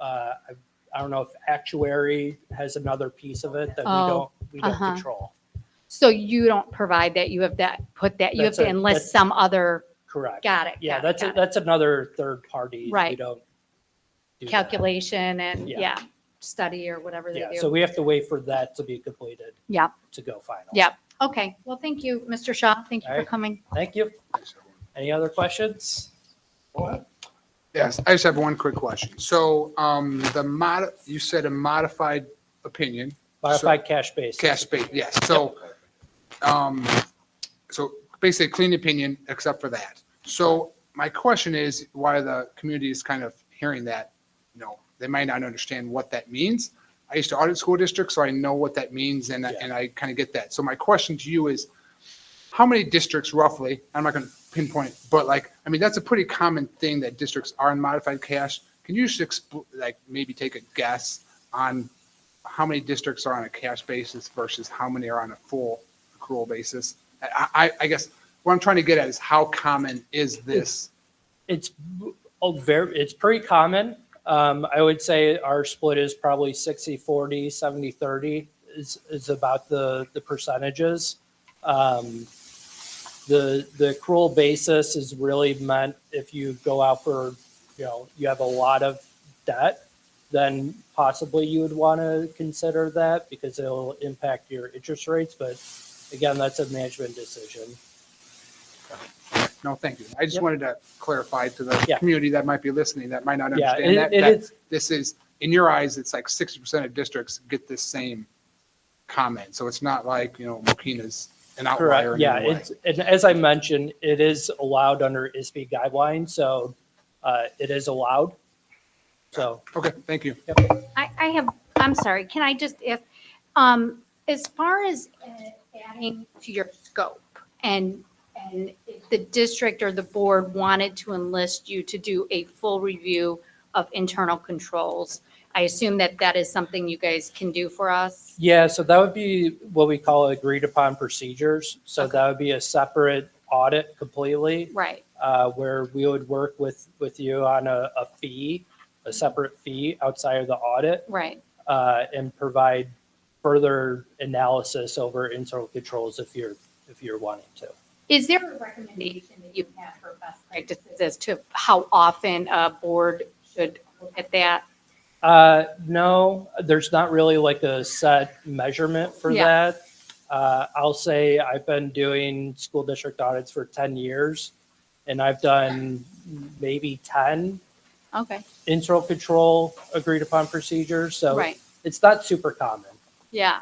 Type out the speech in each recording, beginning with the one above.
uh, I I don't know if actuary has another piece of it that we Oh, don't, we don't uh-huh. control. So you don't provide that, you have that, put that, you have That's to, a- unless that's- some other, Correct. got it. Yeah, got it, that's, a- got it. that's another third party. that We Right. don't. do that. Calculation and, Yeah. yeah, study or whatever they Yeah, so do. we have to wait for that to be completed. Yeah. To go final. Yeah. Okay, well, thank you, Mr. Shaw. Thank you for Alright. coming. Thank you. Any other questions? Yes, I just have one quick question. So um, the mod, you said a modified opinion, Modified cash basis. cash bait, yes. So, um, so basically a clean opinion except for that. So my question is why the community is kind of hearing that, you know, they might not understand what that means. I used to audit school districts, so I know what that means and, I- Yeah. and I kind of get that. So my question to you is, how many districts roughly, I'm not going to pinpoint, but like, I mean, that's a pretty common thing that districts are in modified cash. Can you just expl, like, maybe take a guess on how many districts are on a cash basis versus how many are on a full accrual basis? I, I, I guess what I'm trying to get at is how common is this? It's oh, very, it's pretty common. Um, I would say our split is probably 60, 40, 70, 30 is, is about the, the percentages. Um, the, the accrual basis is really meant if you go out for, you know, you have a lot of debt, then possibly you would want to consider that because it'll impact your interest rates. But again, that's a management decision. No, thank you. I just Yep. wanted to clarify to Yeah. the community that might be listening, that might not Yeah, understand it, that, it that is, this is, in your eyes, it's like 60% of districts get this same comment. So it's not like, you know, Mokina's an outlier Correct, in yeah, any way. it's, and as I mentioned, it is allowed under ISB guidelines, so uh, it is allowed. So, Okay, thank you. I, I have, I'm sorry, can I just, if, um, as far as uh, adding to your scope and, and if the district or the board wanted to enlist you to do a full review of internal controls, I assume that that is something you guys can do for us? yeah, so that would be what we call agreed upon procedures. So Okay. that would be a separate audit completely, Right, uh, where we would work with, with you on a, a fee, a separate fee outside of the audit, right. uh, and provide further analysis over internal controls if you're, if you're wanting to. Is there a recommendation that you have for best practices as to how often a board should look at that? Uh, no, there's not really like a set measurement for Yeah. that. Uh, I'll say I've been doing school district audits for 10 years and I've done maybe 10 Okay, internal control agreed upon procedures. So right, it's not super common, yeah.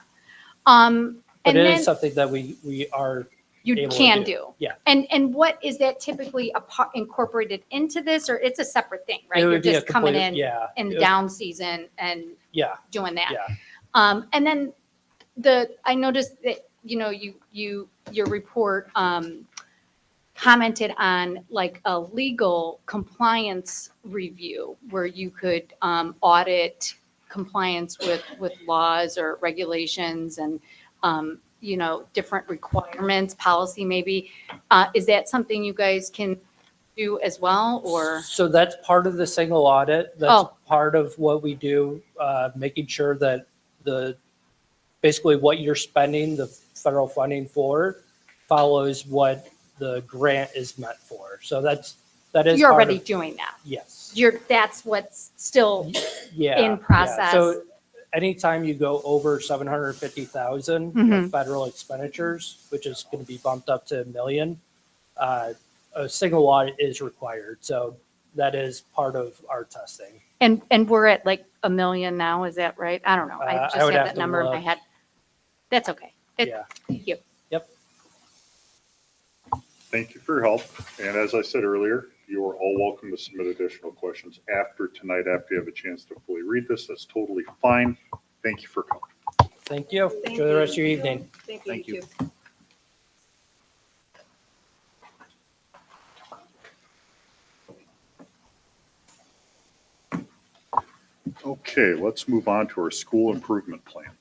Um, but and it is then something that we, we are, you able to can do, do. yeah. And, and what is that typically a par- incorporated into this, or it's a separate thing, right? it You're would be a just coming complete, in, yeah. in it the would- down season and Yeah, doing that. yeah. Um, and then the, I noticed that, you know, you, you, your report, um, commented on like a legal compliance review where you could, um, audit compliance with, with laws or regulations and, um, you know, different requirements, policy maybe. Uh, is that something you guys can do as well or? So that's part of the single audit. That's Oh. part of what we do, uh, making sure that the, basically what you're spending the federal funding for follows what the grant is meant for. So that's, that is. You're part already of- doing that. Yes. You're, that's what's still, Yeah. in yeah. process. So anytime you go over 750,000 Mhm. of federal expenditures, which is going to be bumped up to a million, uh, a single audit is required. So that is part of our testing. And, and we're at like a million now, is that right? I don't know. Uh, I I just would have have that to number in my look. head. That's okay. It- Yeah. Thank you. Thank you for your help. And as I said earlier, you are all welcome to submit additional questions after tonight, after you have a chance to fully read this. That's totally fine. Thank you for coming. Thank you. Enjoy the rest of your evening. Thank you. Okay, let's move on to our school improvement plan.